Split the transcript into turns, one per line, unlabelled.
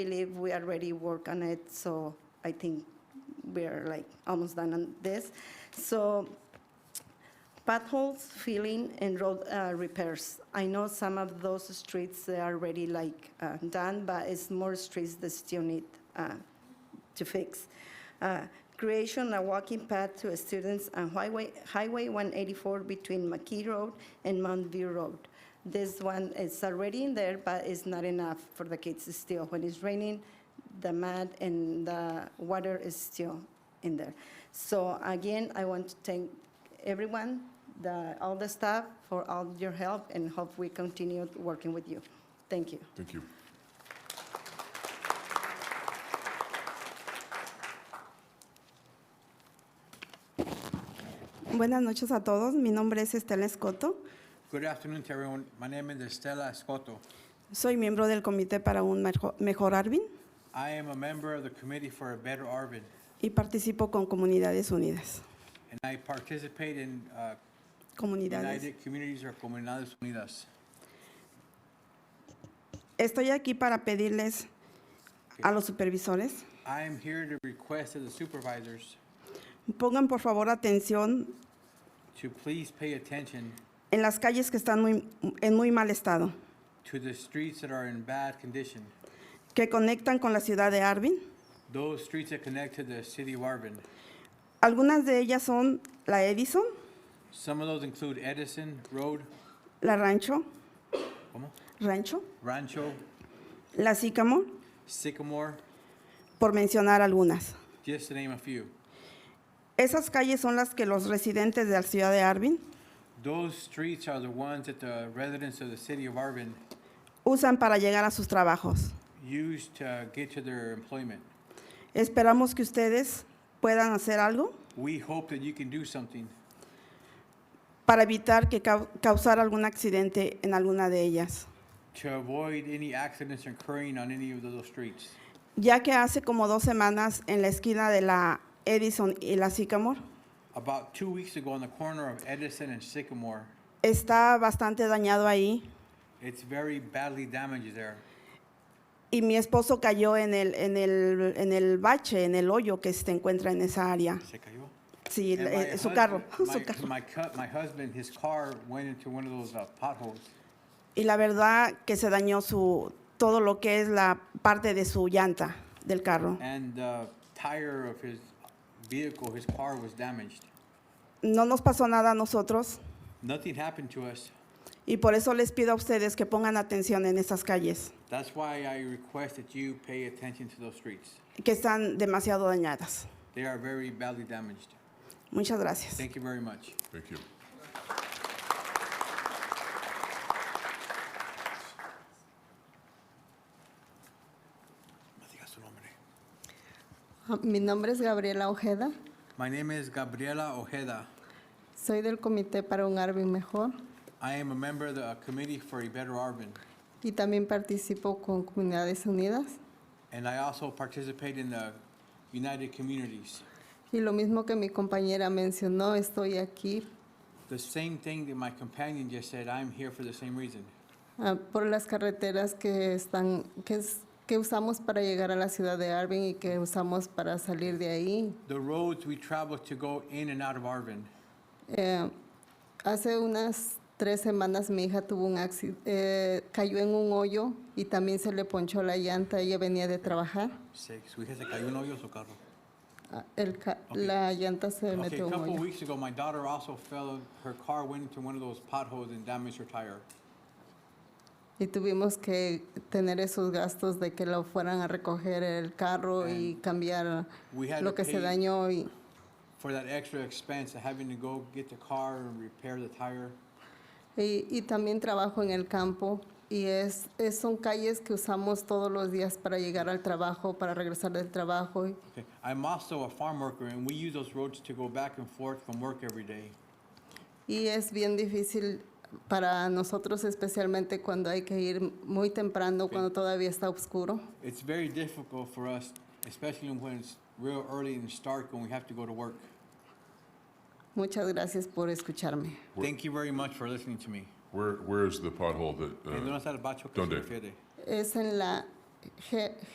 believe we already work on it, so I think we're like almost done on this. So potholes, filling, and road uh, repairs. I know some of those streets they are already like uh, done, but it's more streets that still need uh, to fix. Uh, Creation a walking path to students on Highway, Highway 184 between McKee Road and Mount View Road. This one is already in there, but it's not enough for the kids still. When it's raining, the mud and the water is still in there. So again, I want to thank everyone, the, all the staff for all your help and hope we continue working with you. Thank you.
Thank you.
Buenas noches a todos. Mi nombre es Estela Escoto.
Good afternoon to everyone. My name is Estela Escoto.
Soy miembro del Comité para un Mejo- Mejor Arvin
I am a member of the Committee for a Better Arvin,
y participo con Comunidades Unidas.
and I participate in uh,
Comunidades.
United Communities or Comunidades Unidas.
Estoy aquí para pedirles a los supervisores,
I am here to request of the supervisors
pongan por favor atención
to please pay attention
en las calles que están muy- en muy mal estado,
to the streets that are in bad condition,
que conectan con la ciudad de Arvin.
those streets that connect to the city of Arvin.
Algunas de ellas son la Edison,
Some of those include Edison Road,
la Rancho,
¿cómo?
Rancho,
Rancho,
la Sícamo,
Sycamore,
por mencionar algunas.
just to name a few.
Esas calles son las que los residentes de la ciudad de Arvin
Those streets are the ones that the residents of the city of Arvin
usan para llegar a sus trabajos.
used to get to their employment.
Esperamos que ustedes puedan hacer algo
We hope that you can do something
para evitar que cau- causar algún accidente en alguna de ellas,
to avoid any accidents occurring on any of those streets.
ya que hace como dos semanas en la esquina de la Edison y la Sycamore
About two weeks ago, on the corner of Edison and Sycamore,
está bastante dañado ahí
it's very badly damaged there.
y mi esposo cayó en el, en el, en el bache, en el hoyo que se encuentra en esa área.
Se cayó.
Sí,
And
eh,
my
su
husband-
carro,
my-
su carro.
My, cu- my husband, his car went into one of those uh, potholes,
Y la verdad que se dañó su, todo lo que es la parte de su llanta del carro.
and the tire of his vehicle, his car was damaged.
No nos pasó nada a nosotros
Nothing happened to us.
y por eso les pido a ustedes que pongan atención en esas calles
That's why I request that you pay attention to those streets.
que están demasiado dañadas.
They are very badly damaged.
Muchas gracias.
Thank you very much.
Thank you.
Mi nombre es Gabriela Ojeda,
My name is Gabriela Ojeda.
soy del Comité para un Arvin Mejor
I am a member of the Committee for a Better Arvin,
y también participo con Comunidades Unidas.
and I also participate in the United Communities.
Y lo mismo que mi compañera mencionó, estoy aquí
The same thing that my companion just said, I'm here for the same reason,
ah, por las carreteras que, están, que, es- que usamos para llegar a la ciudad de Arvin y que usamos para salir de ahí.
the roads we travel to go in and out of Arvin.
Eh, hace unas tres semanas mi hija tuvo un accidente, cayó en un hoyo y también se le ponchó la llanta, ella venía de trabajar.
Six, we had to cayó un hoyo su carro.
Ah, el ca-
Ok.
La llanta se
Okay,
metió
a
en un
couple
hoyo.
weeks ago, my daughter also fell, her car went into one of those potholes and damaged her tire.
Y tuvimos que tener esos gastos de que lo fueran a recoger el carro y cambiar
We had
lo
to
que
pay-
se dañó. Y,
For that extra expense of having to go get the car and repair the tire.
y- y también trabajo en el campo y es, es- son calles que usamos todos los días para llegar al trabajo, para regresar del trabajo. Y,
Okay, I'm also a farm worker, and we use those roads to go back and forth from work every day.
y es bien difícil para nosotros, especialmente cuando hay que ir muy temprano, cuando todavía está oscuro.
It's very difficult for us, especially when it's real early and it's dark when we have to go to work.
Muchas gracias por escucharme.
Thank you very much for listening to me.
Where, where is the pothole that,
Eh,
uh,
¿dónde está el bacho que se
¿dónde?
refiere?
Es en la G-